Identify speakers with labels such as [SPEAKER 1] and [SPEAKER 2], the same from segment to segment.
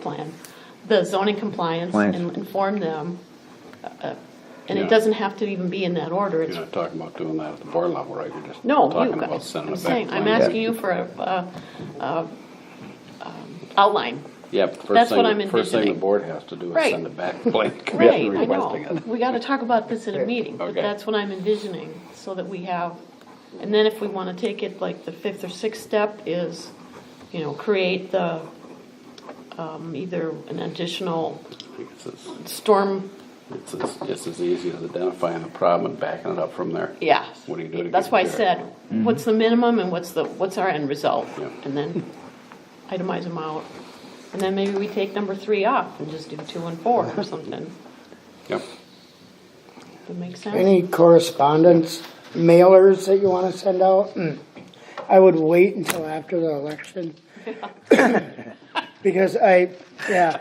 [SPEAKER 1] plan, the zoning compliance
[SPEAKER 2] Compliance.
[SPEAKER 1] and inform them. uh, And it
[SPEAKER 3] Yeah.
[SPEAKER 1] doesn't have to even be in that order. It's,
[SPEAKER 3] You're not talking about doing that at the board level, right? You're just
[SPEAKER 1] no, you
[SPEAKER 3] talking about
[SPEAKER 1] guys,
[SPEAKER 3] sending
[SPEAKER 1] I'm
[SPEAKER 3] it back.
[SPEAKER 1] saying,
[SPEAKER 3] to
[SPEAKER 1] I'm
[SPEAKER 3] planning.
[SPEAKER 1] asking you for a, uh, uh, um, outline.
[SPEAKER 3] Yeah, but first
[SPEAKER 1] That's what
[SPEAKER 3] thing,
[SPEAKER 1] I'm
[SPEAKER 3] first thing the
[SPEAKER 1] envisioning.
[SPEAKER 3] board has to do is
[SPEAKER 1] Right.
[SPEAKER 3] send it back to planning commission
[SPEAKER 1] Right, I
[SPEAKER 3] requesting
[SPEAKER 1] know.
[SPEAKER 3] it.
[SPEAKER 1] We gotta talk about this in a meeting, but
[SPEAKER 3] Okay.
[SPEAKER 1] that's what I'm envisioning, so that we have, and then if we wanna take it, like, the fifth or sixth step is, you know, create the, um, either an additional
[SPEAKER 3] It's as-
[SPEAKER 1] storm,
[SPEAKER 3] It's as, it's as easy as identifying the problem and backing it up from there.
[SPEAKER 1] yeah.
[SPEAKER 3] What do you do to
[SPEAKER 1] That's
[SPEAKER 3] get
[SPEAKER 1] why I
[SPEAKER 3] there?
[SPEAKER 1] said, what's the minimum and what's the, what's our end result?
[SPEAKER 3] Yeah.
[SPEAKER 1] And then itemize them out. And then maybe we take number three off and just do two and four or something.
[SPEAKER 3] Yep.
[SPEAKER 1] That makes sense?
[SPEAKER 4] Any correspondence, mailers that you wanna send out? Mm. I would wait until after the election. Because I, yeah,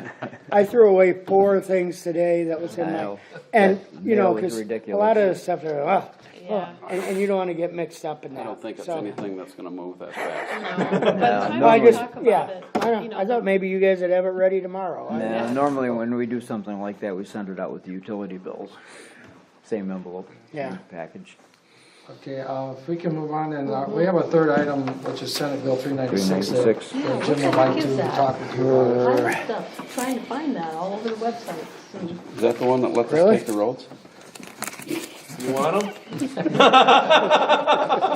[SPEAKER 4] I threw away four things today that was in my,
[SPEAKER 2] Wow.
[SPEAKER 4] and, you know,
[SPEAKER 2] That mail is
[SPEAKER 4] cause a
[SPEAKER 2] ridiculous.
[SPEAKER 4] lot of the stuff, are, "Ugh,
[SPEAKER 1] Yeah.
[SPEAKER 4] ugh," and, and you don't wanna get mixed up in that.
[SPEAKER 3] I don't think it's
[SPEAKER 4] so-
[SPEAKER 3] anything that's gonna move that fast.
[SPEAKER 1] By the
[SPEAKER 4] I
[SPEAKER 1] time we
[SPEAKER 4] just,
[SPEAKER 1] talk about
[SPEAKER 4] yeah,
[SPEAKER 1] it,
[SPEAKER 4] I
[SPEAKER 1] you
[SPEAKER 4] don't,
[SPEAKER 1] know,
[SPEAKER 4] I thought maybe you guys would have it ready tomorrow. I-
[SPEAKER 2] Now, normally when we do something like that, we send it out with the utility bills. Same envelope.
[SPEAKER 4] Yeah.
[SPEAKER 2] same Package.
[SPEAKER 5] Okay, uh, if we can move on, and uh, we have a third item, which is Senate Bill 396. that
[SPEAKER 2] 396.
[SPEAKER 5] Jim
[SPEAKER 1] Yeah, what
[SPEAKER 5] would
[SPEAKER 1] the
[SPEAKER 5] like
[SPEAKER 1] heck is
[SPEAKER 5] to
[SPEAKER 1] that?
[SPEAKER 5] talk with you about.
[SPEAKER 1] I was stuff- trying to find that all over the websites. and-
[SPEAKER 3] Is that the one that lets us
[SPEAKER 4] Really?
[SPEAKER 3] take the roads?
[SPEAKER 6] You want them?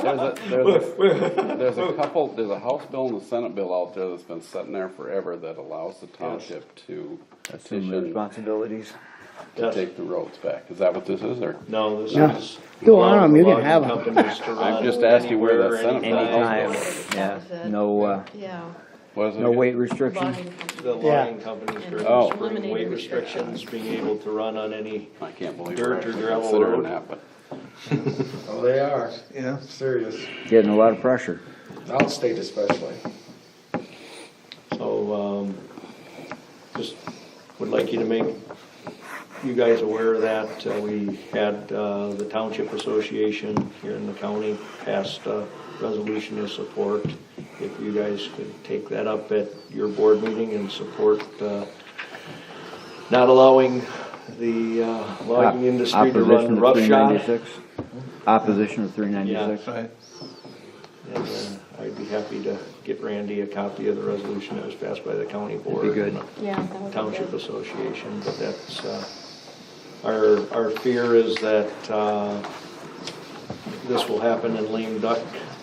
[SPEAKER 3] There's a, there's a, there's a couple, there's a House bill and a Senate bill out there that's been sitting there forever that allows the township to
[SPEAKER 2] Assume the
[SPEAKER 3] petition
[SPEAKER 2] responsibilities.
[SPEAKER 3] to take the roads back. Is that what this is, or?
[SPEAKER 6] No, this
[SPEAKER 4] Yeah.
[SPEAKER 6] is.
[SPEAKER 4] You want 'em, you can
[SPEAKER 6] allowing
[SPEAKER 4] have 'em.
[SPEAKER 6] companies to run
[SPEAKER 3] just asked you where that
[SPEAKER 6] anywhere,
[SPEAKER 3] Senate bill
[SPEAKER 6] anytime.
[SPEAKER 2] Anytime, Uh, yeah,
[SPEAKER 1] was it.
[SPEAKER 2] no, uh,
[SPEAKER 1] Yeah.
[SPEAKER 3] what is it
[SPEAKER 2] no
[SPEAKER 3] again?
[SPEAKER 2] weight restrictions.
[SPEAKER 1] logging company.
[SPEAKER 6] The logging companies during
[SPEAKER 3] Oh.
[SPEAKER 6] the spring,
[SPEAKER 1] Eliminated
[SPEAKER 6] weight
[SPEAKER 1] the restriction.
[SPEAKER 6] restrictions, being able to run on any,
[SPEAKER 3] I can't believe
[SPEAKER 6] Dirt
[SPEAKER 3] we're
[SPEAKER 6] or
[SPEAKER 3] actually
[SPEAKER 6] gravel
[SPEAKER 3] considering
[SPEAKER 6] road?
[SPEAKER 3] that, but
[SPEAKER 5] Oh, they are, yeah, serious,
[SPEAKER 2] Getting a lot of pressure.
[SPEAKER 5] outstate especially.
[SPEAKER 6] so, um, just would like you to make you guys aware of that. Uh, We had, uh, the Township Association here in the county passed a resolution of support. If you guys could take that up at your board meeting and support, uh, not allowing the uh, logging industry to
[SPEAKER 2] Opposition
[SPEAKER 6] run roughshod.
[SPEAKER 2] 396. Opposition of three ninety-six.
[SPEAKER 6] Yeah. And uh, I'd be happy to get Randy a copy of the resolution that was passed by the county board.
[SPEAKER 2] good.
[SPEAKER 6] and
[SPEAKER 1] Yeah. that
[SPEAKER 6] the
[SPEAKER 1] would be
[SPEAKER 6] Township
[SPEAKER 1] good.
[SPEAKER 6] Association, but that's, uh, our, our fear is that uh, this will happen in lame duck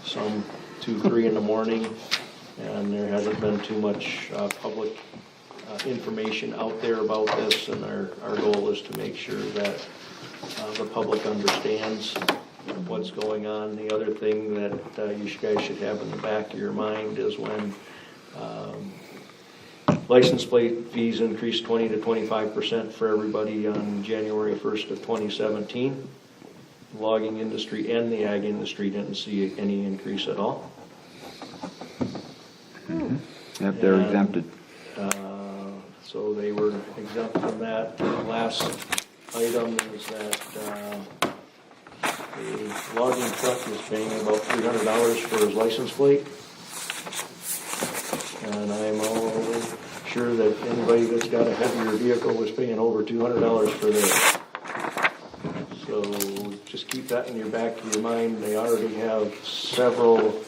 [SPEAKER 6] some two, three in the morning, and there hasn't been too much uh, public uh, information out there about this, and our, our goal is to make sure that uh, the public understands what's going on. The other thing that uh, you guys should have in the back of your mind is when um, license plate fees increased 20 to 25 percent for everybody on January 1st of 2017. Logging industry and the ag industry didn't see any increase at all.
[SPEAKER 2] Mm-hmm. Yep, they're
[SPEAKER 6] And-
[SPEAKER 2] exempted.
[SPEAKER 6] Uh, So they were exempt from that. The Last item is that uh, the logging truck is paying about $300 for his license plate. And I'm all sure that anybody that's got a heavier vehicle was paying over two hundred dollars for theirs. So just keep that in your back of your mind. They already have several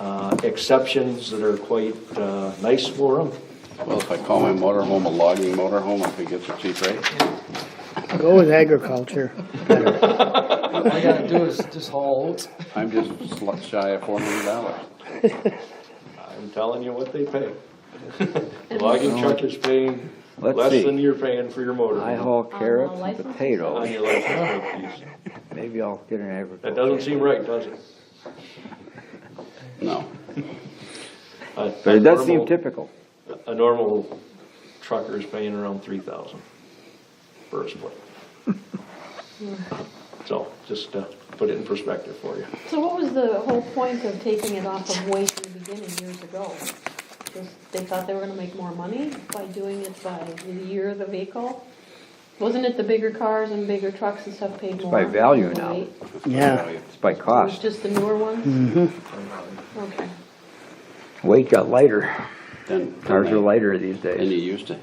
[SPEAKER 6] uh, exceptions that are quite uh, nice for them.
[SPEAKER 3] Well, if I call my motorhome a logging motorhome, I could get the cheap rate.
[SPEAKER 4] Go with agriculture.
[SPEAKER 5] All you gotta do is just haul oats.
[SPEAKER 3] I'm just sl- shy of four hundred dollars.
[SPEAKER 6] I'm telling you what they pay. Logging truck is paying
[SPEAKER 2] Let's
[SPEAKER 6] less
[SPEAKER 2] see.
[SPEAKER 6] than you're paying for your motor.
[SPEAKER 2] I haul
[SPEAKER 1] the
[SPEAKER 2] carrots and
[SPEAKER 1] license?
[SPEAKER 6] On
[SPEAKER 2] potatoes.
[SPEAKER 6] your license plate fees.
[SPEAKER 2] Maybe I'll get an
[SPEAKER 6] That
[SPEAKER 2] agriculture.
[SPEAKER 6] doesn't seem right, does it?
[SPEAKER 3] No.
[SPEAKER 6] A-
[SPEAKER 2] But it does seem
[SPEAKER 6] normal-
[SPEAKER 2] typical.
[SPEAKER 6] a normal trucker is paying around three thousand for a split. So, just to put it in perspective for you.
[SPEAKER 1] So what was the whole point of taking it off of weight in the beginning years ago? Just, they thought they were gonna make more money by doing it by the year of the vehicle? Wasn't it the bigger cars and bigger trucks and stuff paid more?
[SPEAKER 2] by value
[SPEAKER 1] than
[SPEAKER 2] now.
[SPEAKER 1] weight?
[SPEAKER 4] Yeah.
[SPEAKER 2] It's by
[SPEAKER 1] It was
[SPEAKER 2] cost.
[SPEAKER 1] just the newer ones? Mm-hmm. Okay.
[SPEAKER 2] Weight got lighter. than.
[SPEAKER 7] Ours are lighter these days.
[SPEAKER 2] Than you used to